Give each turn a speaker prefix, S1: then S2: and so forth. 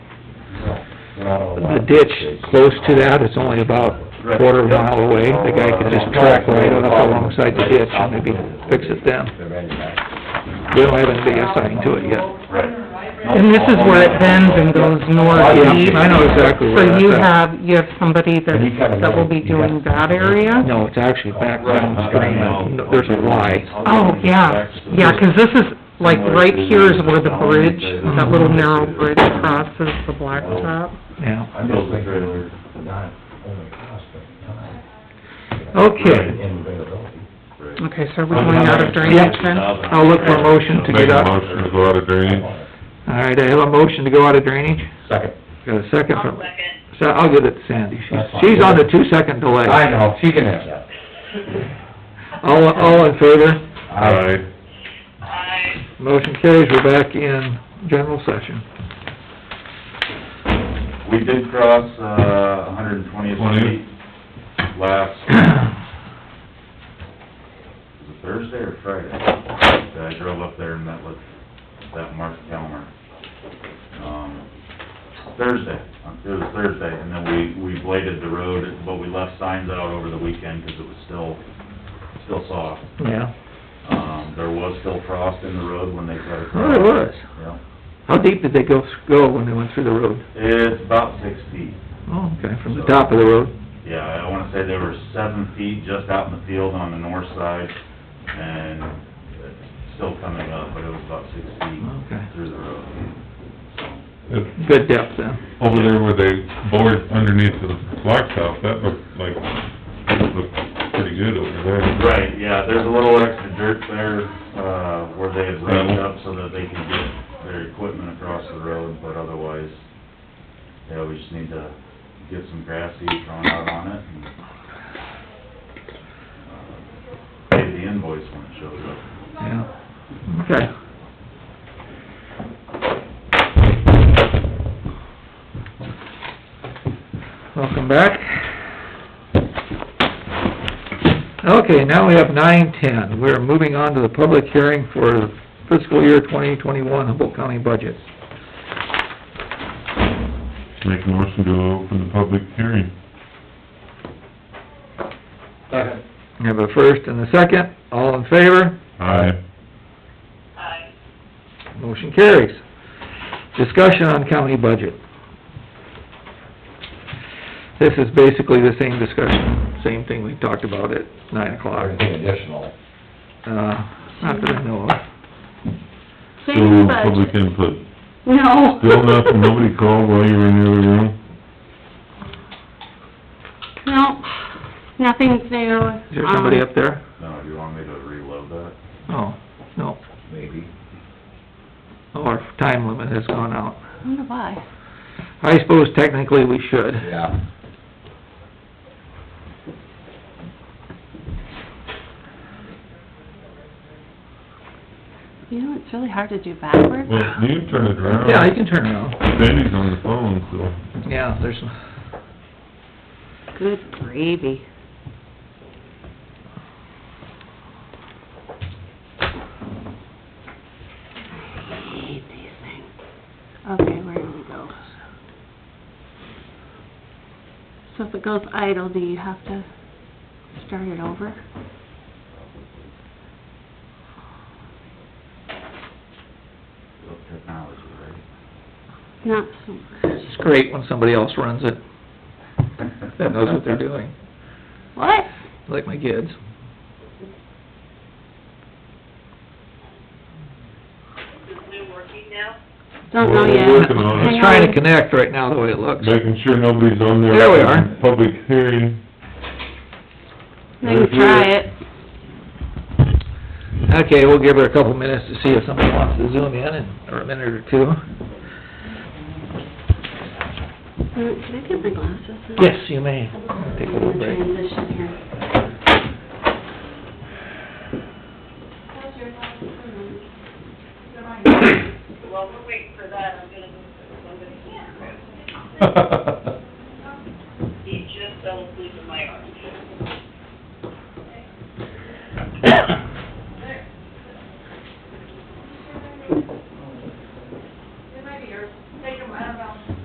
S1: not a lot.
S2: the ditch close to that, it's only about a quarter of a mile away. The guy could just track right up alongside the ditch and maybe fix it then.
S1: They're ready back.
S2: We don't have anything assigned to it yet.
S3: And this is where it bends and goes north
S2: Yeah,
S3: east.
S2: I know exactly where
S3: So you
S2: that's at.
S3: have, you have somebody
S1: And you kinda
S3: that, that will be
S1: know-
S3: doing that area?
S2: No, it's actually back downstream, and there's a Y.
S3: Oh, yeah, yeah, 'cause this is, like, right here is where the bridge, that little narrow bridge crosses the blacktop.
S2: yeah.
S1: I'm just thinking we're not only cost, but time.
S2: Okay.
S1: And availability.
S3: Okay, so are
S2: Oh,
S3: we going out of drainage then?
S2: I'll look for a motion to get
S4: Make a
S2: up.
S4: motion to go out of drainage.
S2: All right, I have a motion to go out of drainage.
S1: Second.
S2: Got a second
S5: I'll
S2: from,
S5: second.
S2: so I'll give it to Sandy. She's,
S1: That's fine.
S2: she's on the two-second delay.
S1: I know, she can have that.
S2: All, all in favor?
S4: Aye.
S5: Aye.
S2: Motion carries, we're back in general session.
S6: We did cross, uh, 120th Street last, was it Thursday or Friday? That I drove up there and met with that Mark Kalmer. Um, Thursday, it was Thursday, and then we, we bladed the road, but we left signs out over the weekend because it was still, still soft.
S2: Yeah,
S6: Um, there was still frost in the road when they cut across.
S2: oh, it was.
S6: Yeah.
S2: How deep did they go, go when they went through the road?
S6: It's about six feet.
S2: Oh, okay, from the top of the road.
S6: Yeah, I wanna say they were seven feet just out in the field on the north side, and it's still coming up, but it was about six
S2: Okay.
S6: feet through the road.
S4: It's
S2: Good depth then.
S4: Uh, Over there where they bored underneath the blacktop, that looked like, that looked pretty good over there.
S6: Right, yeah, there's a little extra dirt there, uh, where they had rubbed up so that they could get their equipment across the road, but otherwise, yeah, we just need to get some grass seed thrown out on it and, uh, pay the invoice when it shows up.
S2: Yeah, okay. Welcome back. Okay, now we have nine ten. We're moving on to the public hearing for fiscal year twenty twenty-one Humboldt County budget.
S4: Make a motion to open the public hearing.
S1: Second.
S2: We have a first and a second. All in favor?
S4: Aye.
S5: Aye.
S2: Motion carries. Discussion on county budget. This is basically the same discussion, same thing we talked about at nine o'clock,
S1: Anything additional?
S2: uh, not that I know of.
S4: Still public input.
S3: No.
S4: Still nothing, nobody called while you were in the other room?
S7: No, nothing's new.
S2: Is there somebody
S7: Um,
S2: up there?
S6: No, do you want me to reload that?
S2: Oh, no,
S1: Maybe.
S2: Oh, our time limit has gone out.
S7: I wonder why.
S2: I suppose technically we should.
S1: Yeah.
S7: You know, it's really hard to do backwards.
S4: Well, you turn it around.
S2: Yeah, you can turn around.
S4: Sandy's on the phone, so.
S2: Yeah, there's,
S7: Good gravy. I hate these things. Okay, where do we go? So if it goes idle, do you have to start it over?
S6: Look, technology,
S7: Not so much.
S2: it's great when somebody else runs it,
S6: right?
S2: that knows what they're doing,
S7: What?
S2: like my kids.
S5: Is Zoom working now?
S7: Don't know
S4: We're-
S7: yet.
S4: We're working on it,
S7: Hang on.
S2: Trying to connect right now, the way it looks.
S4: making sure nobody's on there.
S2: There we are.
S4: Public hearing.
S7: They can try it.
S2: Okay, we'll give her a couple minutes to see if somebody wants to zoom in, and- or a minute or two.
S7: Uh, Can I get my glasses? out?
S2: Yes, you may. Take a little
S7: I'm gonna
S2: break.
S7: Transition here.
S5: Well, we're waiting for that, I'm gonna, I'm gonna,
S1: Well,
S5: he just fell asleep in my arms.